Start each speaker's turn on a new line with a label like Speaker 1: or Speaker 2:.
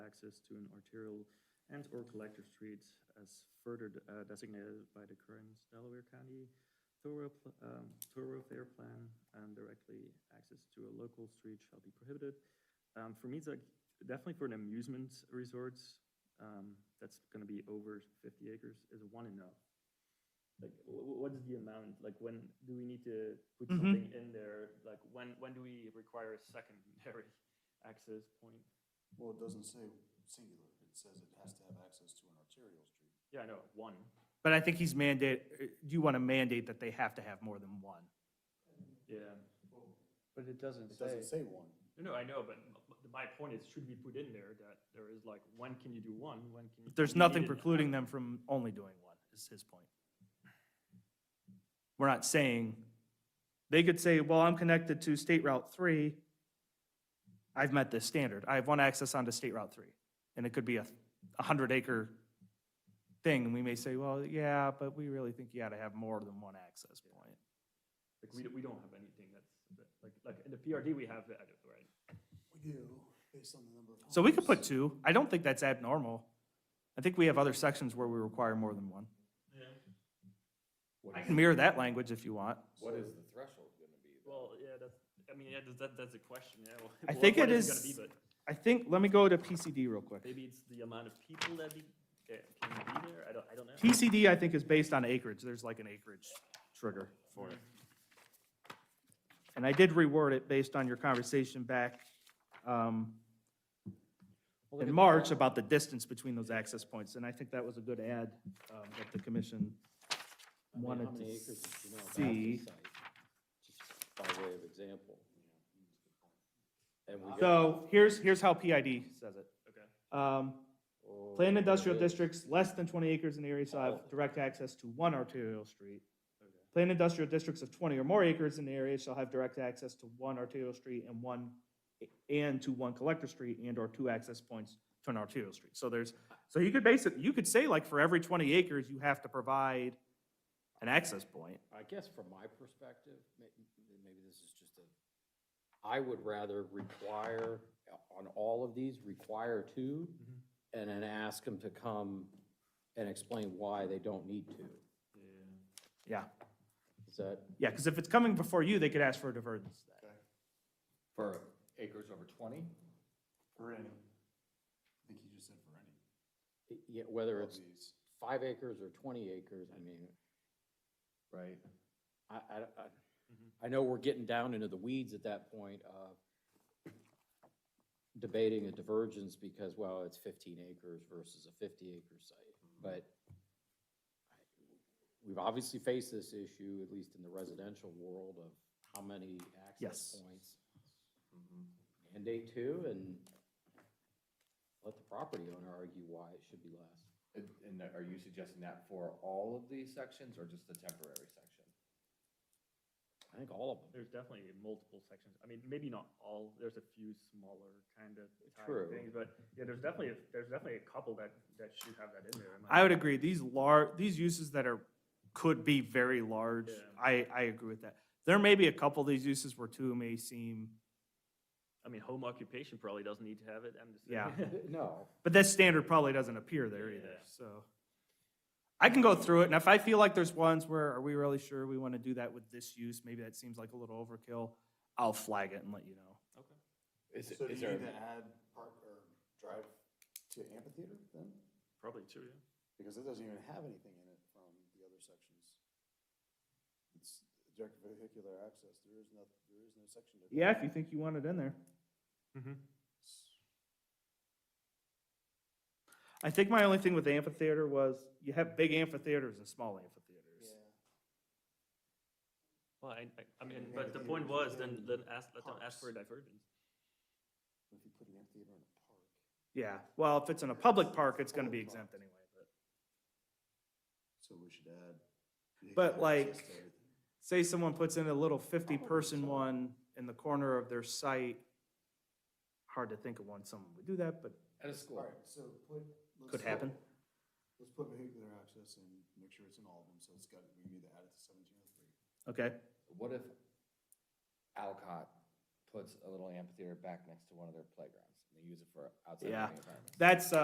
Speaker 1: access to an arterial and/or collector street as further de- uh, designated by the current Delaware County thorough pl- um, thoroughfare plan, and directly access to a local street shall be prohibited. Um, For me, it's like, definitely for an amusement resort, um, that's gonna be over fifty acres, is one enough? Like, wh- wh- what's the amount, like, when do we need to put
Speaker 2: Mhm.
Speaker 1: something in there? Like, when, when do we require a secondary access point?
Speaker 3: Well, it doesn't say singular, it says it has to have access to an arterial street.
Speaker 1: Yeah, I know, one,
Speaker 2: But I think he's mandate, uh, you want to mandate that they have to have more than one.
Speaker 1: yeah.
Speaker 4: But it doesn't
Speaker 3: It doesn't
Speaker 4: say,
Speaker 3: say one.
Speaker 1: No, no, I know, but m- m- my point is, should we put in there that there is like, when can you do one, when can you?
Speaker 2: There's
Speaker 1: when you
Speaker 2: nothing
Speaker 1: need it?
Speaker 2: precluding them from only doing one, is his point. We're not saying, they could say, well, I'm connected to State Route 3. I've met this standard. I have one access onto State Route 3. And it could be a 100-acre thing, and we may say, well, yeah, but we really think you got to have more than one access point.
Speaker 1: Like, we, don't- we don't have anything that's, that- like, like, in the PRD, we have that, right?
Speaker 3: We do, based on the number of.
Speaker 2: So we could put two. I don't think that's abnormal. I think we have other sections where we require more than one.
Speaker 1: Yeah.
Speaker 2: I can mirror that language if you want.
Speaker 5: What is the threshold gonna be?
Speaker 1: Well,
Speaker 5: though?
Speaker 1: yeah, that's, I mean, yeah, that's- that, that's a question, yeah. well,
Speaker 2: I
Speaker 1: what-
Speaker 2: think
Speaker 1: what
Speaker 2: it
Speaker 1: gonna
Speaker 2: is-
Speaker 1: be, but
Speaker 2: I think, let me go to PCD real quick.
Speaker 1: Maybe it's the amount of people that be, eh, can be there, I don't, I don't know.
Speaker 2: PCD, I think, is based on acreage. There's like an acreage trigger for it. And I did reword it based on your conversation back um,
Speaker 4: Well, look
Speaker 2: in
Speaker 4: at-
Speaker 2: March about the distance between those access points. And I think that was a good add um, that the commission
Speaker 4: I mean,
Speaker 2: wanted
Speaker 4: how many
Speaker 2: to
Speaker 4: acres did you know about
Speaker 2: see.
Speaker 4: this site? Just By way of example. And we.
Speaker 2: So here's, here's how PID says it.
Speaker 1: Okay.
Speaker 2: Um,
Speaker 4: Oh,
Speaker 2: Planned industrial
Speaker 4: really?
Speaker 2: districts less than 20 acres in area shall have direct access to one arterial street. Planned industrial districts of 20 or more acres in the area shall have direct access to one arterial street and one, and to one collector street and/or two access points to an arterial street. So there's, so you could basically, you could say like for every 20 acres, you have to provide an access point.
Speaker 4: I guess from my perspective, may- maybe this is just a, I would rather require, on all of these, require two,
Speaker 2: Mm-hmm.
Speaker 4: and then ask them to come and explain why they don't need to.
Speaker 2: Yeah,
Speaker 4: Is that
Speaker 2: yeah, because if it's coming before you, they could ask for a divergence then.
Speaker 5: For acres over twenty?
Speaker 3: For any. I think he just said for any.
Speaker 4: Yeah, whether
Speaker 3: of
Speaker 4: it's
Speaker 3: these.
Speaker 4: five acres or twenty acres, I mean,
Speaker 5: Right.
Speaker 4: I, I, I, I know we're getting down into the weeds at that point of debating a divergence because, well, it's fifteen acres versus a fifty acre site, but we've obviously faced this issue, at least in the residential world, of how many access
Speaker 2: Yes.
Speaker 4: points. Mandate two and let the property owner argue why it should be less.
Speaker 5: And, and are you suggesting that for all of these sections or just the temporary section?
Speaker 4: I think all of them.
Speaker 1: There's definitely multiple sections. I mean, maybe not all. There's a few smaller kind of
Speaker 4: True.
Speaker 1: things, but yeah, there's definitely a, there's definitely a couple that that should have that in there. in my
Speaker 2: I would agree, these lar, these uses that are, could be very large,
Speaker 1: Yeah.
Speaker 2: I, I agree with that. There may be a couple of these uses where two may seem,
Speaker 1: I mean, home occupation probably doesn't need to have it. I'm just
Speaker 2: Yeah.
Speaker 4: No,
Speaker 2: but that standard probably doesn't appear there either,
Speaker 1: Yeah.
Speaker 2: so. I can go through it, and if I feel like there's ones where, are we really sure we want to do that with this use, maybe that seems like a little overkill, I'll flag it and let you know.
Speaker 1: okay.
Speaker 5: Is,
Speaker 3: So do
Speaker 5: is
Speaker 3: you need to
Speaker 5: there,
Speaker 3: add park or drive to amphitheater then?
Speaker 1: Probably too. Yeah.
Speaker 3: Because it doesn't even have anything in it from the other sections. It's direct vehicular access, there is no, there is no section. to that.
Speaker 2: Yeah, if you think you want it in there. I think my only thing with the amphitheater was, you have big amphitheaters and small amphitheaters.
Speaker 1: Well, I, I, I mean,
Speaker 3: Yeah,
Speaker 1: but the
Speaker 3: but
Speaker 1: point
Speaker 3: you-
Speaker 1: was, then then ask let them ask
Speaker 3: Parks.
Speaker 1: for a divergence.
Speaker 3: But If you put an amphitheater in a park.
Speaker 2: Yeah, well, if it's in a public park, it's gonna be exempt anyway, but.
Speaker 3: So we should add.
Speaker 2: But,
Speaker 3: vehicular
Speaker 2: like,
Speaker 3: access to everything.
Speaker 2: say someone puts in a little fifty-person one in the corner of their site, hard to think of one someone would do that, but
Speaker 5: at a school?
Speaker 3: All right, so put. let's
Speaker 2: could
Speaker 3: put-
Speaker 2: happen.
Speaker 3: Let's put vehicular access and make sure it's in all of them, so it's got, we need to add it to seventeen oh three.
Speaker 2: Okay,
Speaker 5: What if Alcott puts a little amphitheater back next to one of their playgrounds? and they use it for outside
Speaker 2: Yeah.
Speaker 5: learning environments.
Speaker 2: That's, uh,